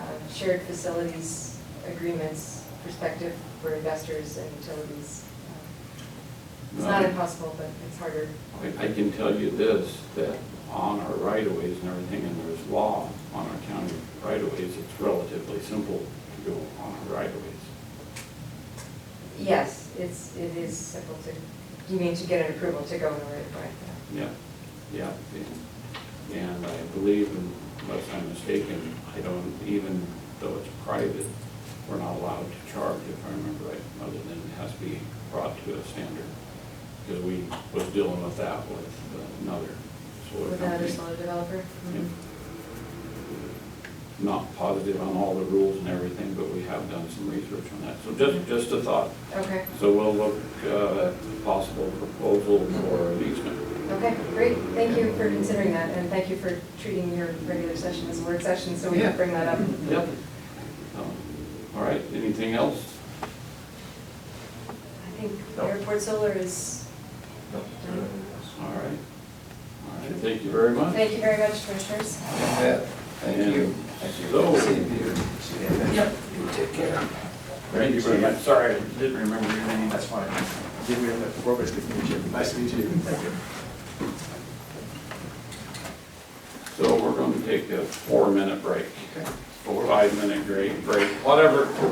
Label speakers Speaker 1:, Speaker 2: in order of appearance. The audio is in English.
Speaker 1: shared facilities agreements perspective for investors and utilities. It's not
Speaker 2: Um,
Speaker 1: impossible, but it's harder.
Speaker 2: I, I can tell you this, that on our right-of-ways and everything, and there's law on our county right-of-ways, it's relatively simple to go on our right-of-ways.
Speaker 1: Yes, it's, it is simple to, you mean to get an approval to go in order to buy that.
Speaker 2: Yeah, yeah. and- And I believe, unless I'm mistaken, I don't, even though it's private, we're not allowed to charge, if I remember right, other than it has to be brought to a standard. Because we was dealing with that with another solar
Speaker 1: With
Speaker 2: company.
Speaker 1: another solar developer? Mm-hmm.
Speaker 2: Yep. Not positive on all the rules and everything, but we have done some research on that. So just, just a thought.
Speaker 1: Okay,
Speaker 2: So we'll look uh, at possible proposal for an easement.
Speaker 1: okay, great. Thank you for considering that, and thank you for treating your regular session as a work session, so we can
Speaker 2: Yeah.
Speaker 1: bring that up.
Speaker 2: Yep. Um, All right, anything else?
Speaker 1: I think airport solar is
Speaker 2: All right. All right, thank you very much.
Speaker 1: Thank you very much, commissioners.
Speaker 3: Yeah, Thank you.
Speaker 2: So-
Speaker 3: See you, Peter. See you. You Take care.
Speaker 2: Thank you very much. Sorry, I didn't remember your name.
Speaker 3: That's fine. Did we have that before, but it's good to meet you. Nice to meet you. Thank you.
Speaker 2: So we're going to take a four-minute break,
Speaker 3: Okay.
Speaker 2: four, five-minute break, break, whatever